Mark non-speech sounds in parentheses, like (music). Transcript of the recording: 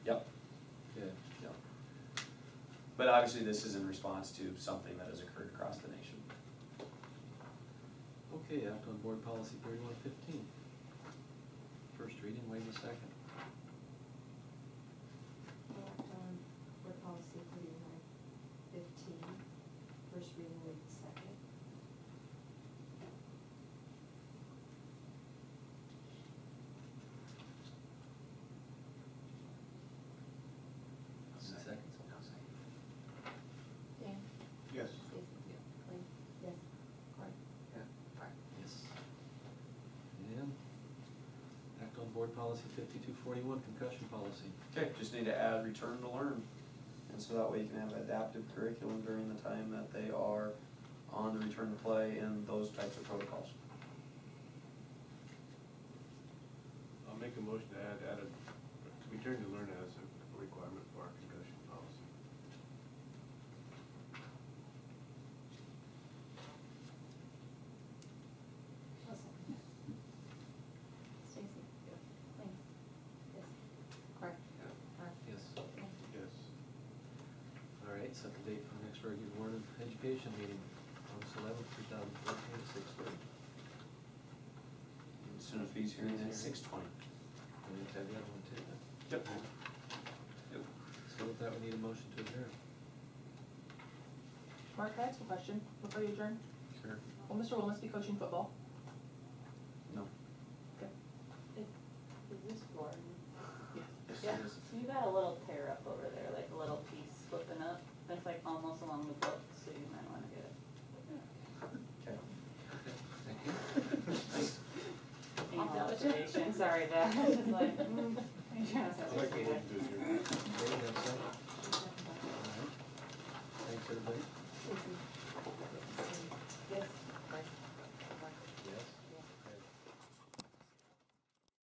But obviously, this is in response to something that has occurred across the nation. Okay, act on board policy thirty-one fifteen. First reading, waive the second. Act on board policy thirty-nine fifteen, first reading, wait a second. Is it second? Dan? Yes. Jason? Yeah. Lynn? Yes. Cory? Yes. And act on board policy fifty-two forty-one, concussion policy. Okay, just need to add return to learn. And so that way you can have adaptive curriculum during the time that they are on the return to play and those types of protocols. I'll make a motion to add, add a, return to learn as a requirement for our concussion policy. I'll second that. Stacy? Lynn? Yes. Cory? Mark? Yes. Dan? Yes. All right, set the date for the next regular Board of Education meeting, August eleventh, two thousand fourteen, at six And thirty. Soon as fees hearing at six twenty. We need to have that one too. then. Yep. Yep. So with that, we need a motion to adjourn. Mark, I have a question before you adjourn. Sure. Will Mr. Willis be coaching football? No. Is this Gordon? Yes. Yes, Yeah, it is. so you got a little tear up over there, like a little piece flipping up, that's like almost along the book, so you might wanna get it. Okay. (laughs) Any observation, sorry, that, I was just like, mm, I'm trying to I'd sound like to stupid. move to adjourn.